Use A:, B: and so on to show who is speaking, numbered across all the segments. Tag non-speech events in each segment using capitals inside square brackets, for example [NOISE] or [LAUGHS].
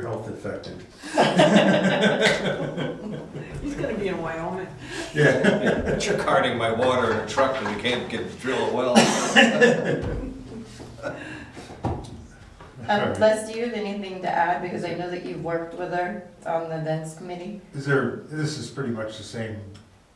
A: health affected.
B: He's gonna be in Wyoming.
A: Yeah.
C: But you're carting my water in a truck and you can't get, drill a well.
A: All
D: Um,
A: right.
D: Les, do you have anything to add, because I know that you've worked with her on the events committee?
A: Is there, this is pretty much the same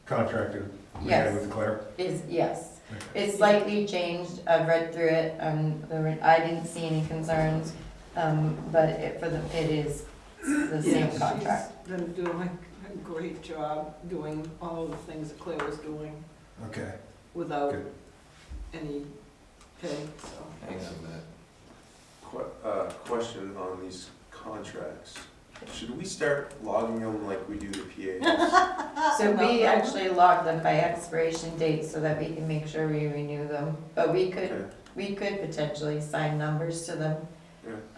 A: contractor we had
D: Yes.
A: with Claire?
D: Is, yes, it's slightly changed, I've read through it, um, there were, I didn't see any concerns, um, but it, for the, it is the
B: Yeah,
D: same
B: she's
D: contract.
B: Been doing a great job doing all of the things that Claire was doing
A: Okay,
B: without
A: Good.
B: any pay, so.
C: Hang on a minute.
E: Que- uh, Question on these contracts. Should we start logging them like we do the
D: [LAUGHS]
E: PAs?
D: So we
B: No.
D: actually log them by expiration date so that we can make sure we renew them, but we could,
E: Okay.
D: we could potentially sign numbers to them.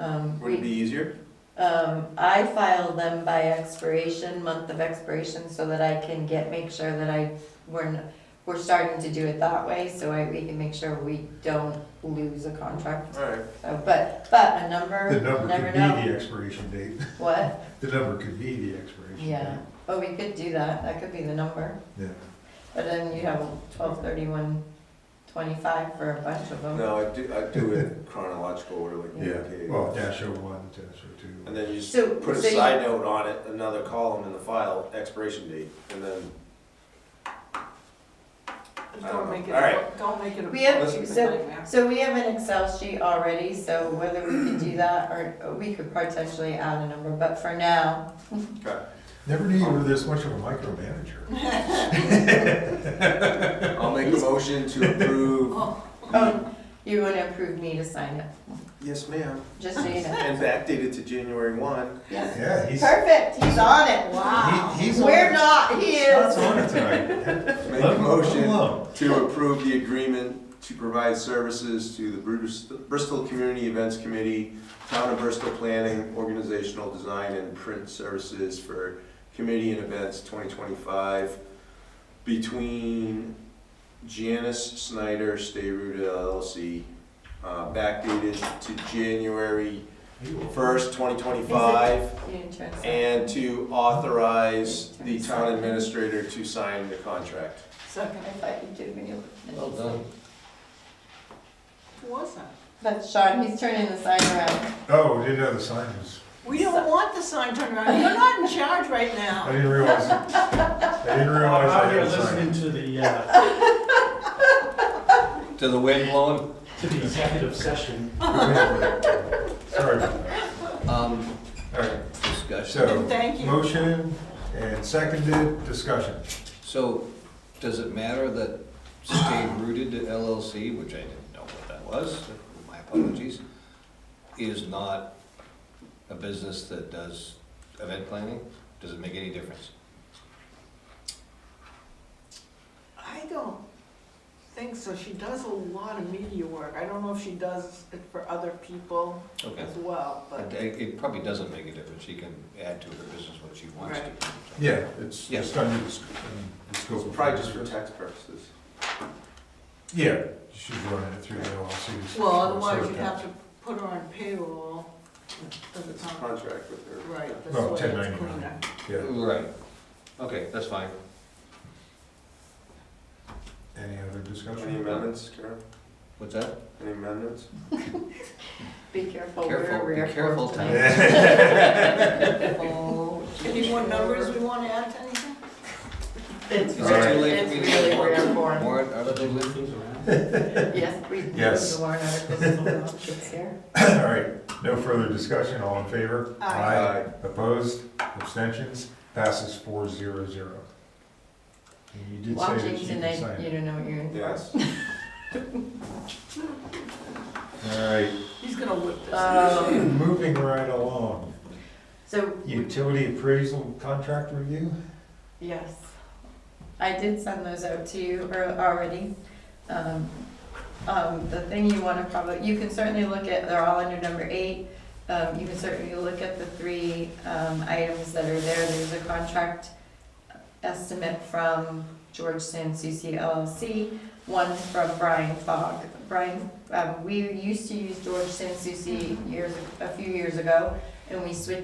D: Um,
E: Would it
D: we,
E: be easier?
D: Um, I file them by expiration, month of expiration, so that I can get, make sure that I, we're, n- we're starting to do it that way, so I, we can make sure we don't lose a contract.
E: All right,
D: So, but, but a
A: the
D: number,
A: number
D: never
A: could be
D: know.
A: the expiration date, [LAUGHS]
D: What?
A: the number could be the expiration date.
D: Yeah, but we could do that, that could be the number,
A: Yeah.
D: but then you have twelve thirty-one twenty-five for a bunch of them.
E: no, I do, I do it chronological order like we do the
A: Yeah, well,
E: PAs.
A: dash oh one, dash oh two.
E: And then you just
D: So-
E: put a
D: so you-
E: side note on it, another column in the file, expiration date, and then,
B: Don't make
E: All right.
B: it, don't make it a
D: We have,
E: Listen.
D: so,
B: nightmare.
D: so we have an Excel sheet already, so whether we could do that, or we could potentially add a number, but for now,
A: Never knew you were this much of a
D: [LAUGHS]
A: micromanager.
E: I'll make a motion to
D: [LAUGHS]
E: approve.
D: oh, you wanna approve me to sign it,
E: Yes, ma'am.
D: just so you know.
E: And backdated to January one.
D: Yes.
A: Yeah, he's,
D: Perfect, he's on it.
B: Wow.
A: He- he's on
D: We're
A: it.
D: not, he
A: that's
D: is.
A: on it tonight.
E: Make
A: Let
E: a
A: him
E: motion
A: alone.
E: to approve the agreement to provide services to the Brus- Bristol Community Events Committee, Town of Bristol Planning, Organizational Design and Print Services for Committee and Events 2025 between Janice Snyder, Stay Rooted LLC, uh, backdated to January 1st, 2025,
D: You didn't turn it on.
E: and to authorize the town administrator to sign the contract.
D: I
B: Second,
D: thought you did when you.
C: Well done.
B: who was that?
D: That's Sean, he's turning the sign around.
A: Oh, we didn't know the sign was,
B: We don't want the sign turned around, you're not in charge right
A: I
B: now.
A: didn't realize, I didn't realize I
F: Out
A: had
F: here
A: a sign.
F: listening to the, uh,
C: To the wind blowing?
F: to the executive session.
A: Sorry.
C: Um,
A: All right,
C: discussion.
A: so,
B: Thank you.
A: motion and seconded, discussion.
C: So, does it matter that Stay Rooted LLC, which I didn't know what that was, my apologies, is not a business that does event planning? Does it make any difference?
B: I don't think so, she does a lot of media work, I don't know if she does it for other people
C: Okay.
B: as well, but.
C: It, it probably doesn't make a difference. She can add to her business what she wants to.
B: Right.
A: Yeah, it's,
C: Yeah.
A: it's under the sc- um, the scope. of-
E: Probably just for tax purposes.
A: Yeah, she's running it through the LLC.
B: Well, otherwise you'd have to put her on payroll. Doesn't
E: It's a
B: sound
E: contract with her.
B: right. this
A: Well,
B: way it's
A: 1099.
B: cleaner.
A: Yeah,
C: Right. Okay, that's fine.
A: any other
E: Any
A: discussion? [LAUGHS]
E: amendments, Karen?
C: What's that?
E: Any amendments?
D: Be careful, we're
C: Careful, be
D: rear.
C: careful, Tom.
A: [LAUGHS]
B: Any more numbers we want to add to anything?
D: [LAUGHS] It's
C: Is it
A: All right.
D: rare,
C: too late
D: it's
C: for me to
D: really rare
C: get warrant,
D: for him.
C: warrant articles in?
D: Yes, we, the
A: Yes.
D: warrant articles, it's here.
A: All right, no further discussion, all in favor?
B: Aye.
A: Opposed, abstentions, passes four zero zero. You did say that
D: Watching
A: you can
D: tonight,
A: sign
D: you
A: it.
D: don't know what you're in for.
E: Yes.
A: All right,
B: He's gonna whip this.
D: Um,
A: moving right [CLEARS THROAT] along.
D: so,
A: Utility appraisal contract review?
D: yes, I did send those out to you ear- already. Um, um, the thing you wanna probably, you can certainly look at, they're all under number eight. Um, you can certainly look at the three, um, items that are there. There's a contract estimate from Georgetown CC LLC, one from Brian Fogg. Brian, um, we used to use Georgetown CC years, a few years ago, and we switched